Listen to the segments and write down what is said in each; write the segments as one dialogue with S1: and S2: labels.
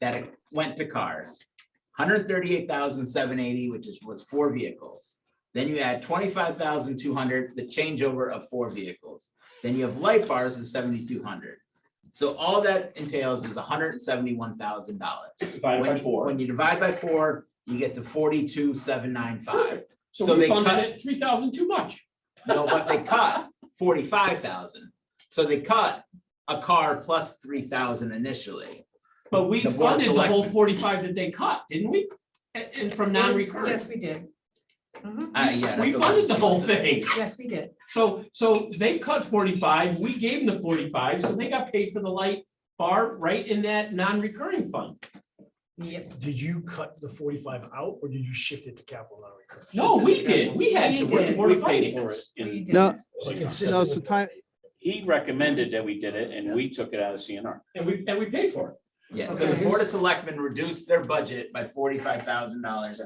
S1: that went to cars. Hundred thirty-eight thousand seven eighty, which is, was four vehicles. Then you add twenty-five thousand two hundred, the changeover of four vehicles. Then you have light bars is seventy-two hundred. So all that entails is hundred and seventy-one thousand dollars.
S2: divided by four.
S1: When you divide by four, you get to forty-two seven nine five.
S2: Perfect.
S1: so
S2: So we
S1: they
S2: funded
S1: cut-
S2: it three thousand too much.
S1: No, but they cut forty-five thousand. So they cut a car plus three thousand initially.
S2: But we
S1: The Board of
S2: funded the whole
S1: Selectmen.
S2: forty-five that they cut, didn't we? And, and from
S3: Yes,
S2: non-recurring.
S3: we did. Mhm.
S1: Uh, yeah.
S2: We
S1: that's a-
S2: funded the whole thing.
S3: Yes, we did.
S2: So, so they cut forty-five, we gave them the forty-five, so they got paid for the light bar right in that non-recurring fund.
S3: Yep.
S4: Did you cut the forty-five out or did you shift it to capital non-recurring?
S2: No, we did. We had to
S3: We
S2: work
S3: did.
S2: forty-five.
S5: paid for it.
S3: we
S5: And
S3: did.
S6: No.
S4: Like
S6: No,
S4: consistent
S6: so
S4: with-
S6: time-
S5: he recommended that we did it and we took it out of CNR.
S2: And we, and we paid for it.
S1: Yeah, so the
S3: Okay.
S1: Board of Selectmen reduced their budget by forty-five thousand dollars.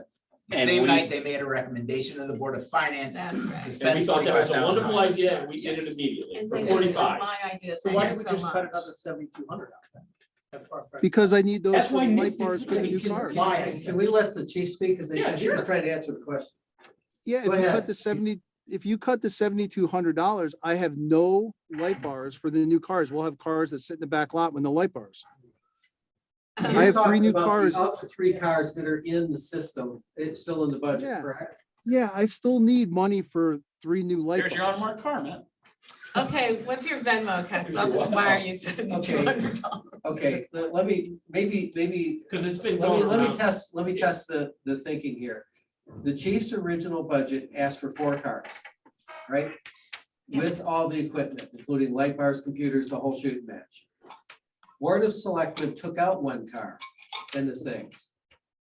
S1: The
S5: And
S1: same
S5: we-
S1: night, they made a recommendation to the Board of Finance
S3: That's
S1: to
S3: right.
S2: And we
S1: spend
S2: thought that
S1: forty-five
S2: was
S1: thousand
S2: a
S1: dollars.
S2: wonderful idea. We did it immediately
S3: And
S2: for
S3: then it was
S2: forty-five.
S3: My idea.
S2: So why did
S3: thank
S2: we
S3: so
S2: just cut
S3: much.
S2: another seventy-two hundred out then?
S6: Because I need those
S2: That's
S6: for
S2: why
S6: the
S2: Nick
S6: light
S2: didn't
S6: bars for the
S2: think
S6: new
S2: he
S6: cars.
S2: applied.
S7: Why, can we let the chief speak, because
S2: Yeah,
S7: he was
S2: sure.
S7: trying to answer the question.
S6: Yeah,
S7: Go
S6: if you
S7: ahead.
S6: cut the seventy, if you cut the seventy-two hundred dollars, I have no light bars for the new cars. We'll have cars that sit in the back lot with no light bars. I have three new
S7: You talked about
S6: cars.
S7: the other Three cars that are in the system, it's still in the budget,
S6: Yeah.
S7: correct?
S6: Yeah, I still need money for three new light
S5: There's your
S6: bars.
S5: unmarked car, man.
S3: Okay, what's your Venmo account? So I'll just wire you seventy-two hundred dollars.
S7: Okay, let, let me, maybe, maybe,
S2: Because it's been
S7: let me,
S2: going
S7: let me
S2: around.
S7: test, let me test the, the thinking here. The chief's original budget asked for four cars, right? With all the equipment, including light bars, computers, the whole shooting match. Board of Selectmen took out one car and the things,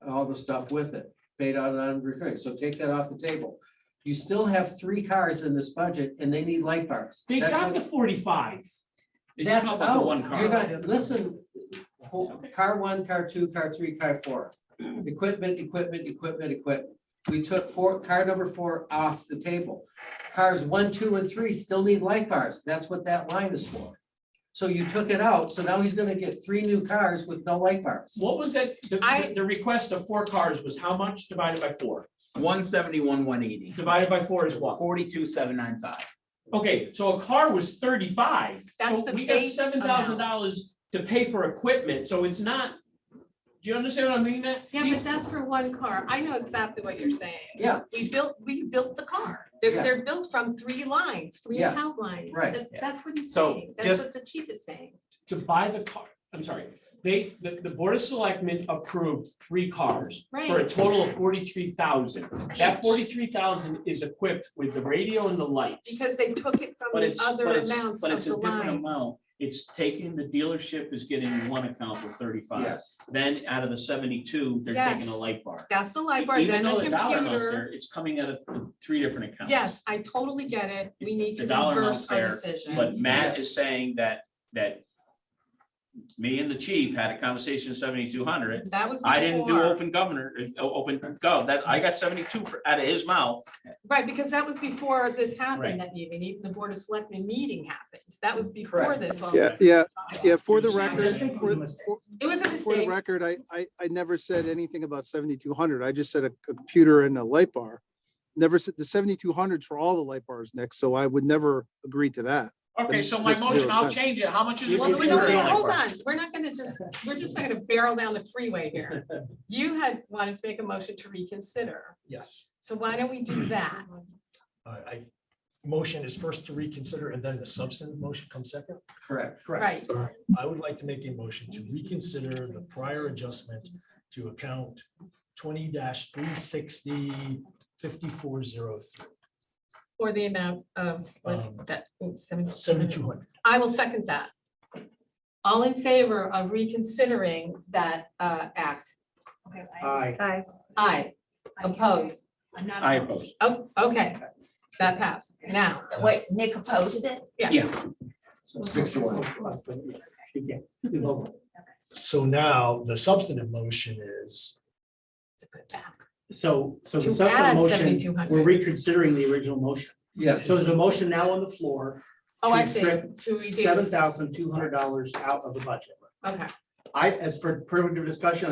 S7: all the stuff with it, paid out on recurring, so take that off the table. You still have three cars in this budget and they need light bars.
S2: They
S7: That's
S2: got
S7: what-
S2: the forty-five.
S5: They just
S7: That's
S5: come up with
S7: out.
S5: one
S7: You're
S5: car.
S7: not, listen, fo- car one, car two, car three, car four. Equipment, equipment, equipment, equipment. We took four, car number four off the table. Cars one, two, and three still need light bars. That's what that line is for. So you took it out, so now he's gonna get three new cars with no light bars.
S2: What was that? The,
S3: I-
S2: the- the request of four cars was how much divided by four?
S1: One seventy-one, one eighty,
S2: Divided by four is what?
S1: forty-two, seven nine five.
S2: Okay, so a car was thirty-five.
S3: That's
S2: So
S3: the
S2: we got
S3: base
S2: seven
S3: amount.
S2: thousand dollars to pay for equipment, so it's not. Do you understand what I mean, Matt?
S3: Yeah, but that's for one car. I know exactly what you're saying.
S7: Yeah.
S3: We built, we built the car. They're,
S7: Yeah.
S3: they're built from three lines, three
S7: Yeah.
S3: account lines.
S7: Right.
S3: That's,
S1: Yeah.
S3: that's what he's
S1: So
S3: saying. That's
S1: just-
S3: what the chief is saying.
S2: To buy the car, I'm sorry, they, the, the Board of Selectmen approved three cars for a
S3: Right.
S2: total of forty-three thousand. That forty-three thousand is equipped with the radio and the lights.
S3: Because they took it from
S5: But
S3: the
S5: it's,
S3: other
S5: but it's,
S3: amounts
S5: but
S3: of
S5: it's
S3: the
S5: a different
S3: lines.
S5: amount. It's taking, the dealership is getting one account for thirty-five.
S7: Yes.
S5: Then out of the seventy-two, they're taking a
S3: Yes.
S5: light bar.
S3: That's the library,
S5: Even
S3: then the
S5: though dollar amount's
S3: computer.
S5: there, It's coming out of three different accounts.
S3: Yes, I totally get it. We need to
S5: The dollar amount's
S3: reverse our
S5: there,
S3: decision.
S5: But Matt
S7: Yes.
S5: is saying that, that me and the chief had a conversation seventy-two hundred.
S3: That was
S5: I didn't do
S3: before,
S5: open governor, uh, open gov, that, I got seventy-two for, out of his mouth.
S3: right, because that was before this
S5: Right.
S3: happened, that meeting, even the Board of Selectmen meeting happened. That was before
S7: Correct.
S3: this. all
S6: Yeah,
S3: this
S6: yeah,
S3: time.
S6: yeah, for the
S5: You're just-
S6: record, for, for-
S3: It was a
S6: for the
S3: mistake.
S6: record, I, I, I never said anything about seventy-two hundred. I just said a computer and a light bar. Never said, the seventy-two hundreds for all the light bars, Nick, so I would never agree to that.
S2: Okay, so my
S6: Makes zero
S2: motion, I'll
S6: sense.
S2: change it. How much is?
S5: You
S2: it?
S3: Well,
S5: can
S3: no,
S5: do
S3: no,
S5: it
S3: no,
S5: on that
S3: hold
S5: part.
S3: on, we're not gonna just, we're just not gonna barrel down the freeway here. You had wanted to make a motion to reconsider,
S4: Yes,
S3: so why don't we do that?
S4: I, I, motion is first to reconsider and then the substantive motion comes second.
S7: Correct.
S3: Right,
S4: I would like to make a motion to reconsider the prior adjustment to account twenty three sixty fifty-four zero
S3: for the amount of, what,
S4: Um,
S3: that, oops, seventy-
S4: seventy-two hundred.
S3: I will second that. All in favor of reconsidering that uh act? Okay.
S4: Aye.
S3: Aye. Aye, opposed,
S8: I'm not.
S5: I oppose.
S3: oh, okay, that passed, now,
S8: Wait, Nick opposed it?
S7: Six to one.
S4: So now the substantive motion is,
S9: So, so
S3: To
S9: the
S3: add
S9: subsequent motion,
S3: 7,200.
S9: we're reconsidering the original motion.
S7: Yes.
S9: So there's a motion now on the floor,
S3: oh, I
S9: To
S3: see,
S9: strip
S3: to
S9: seven
S3: reduce,
S9: thousand two hundred dollars out of the budget.
S3: okay,
S2: I, as for primitive discussion,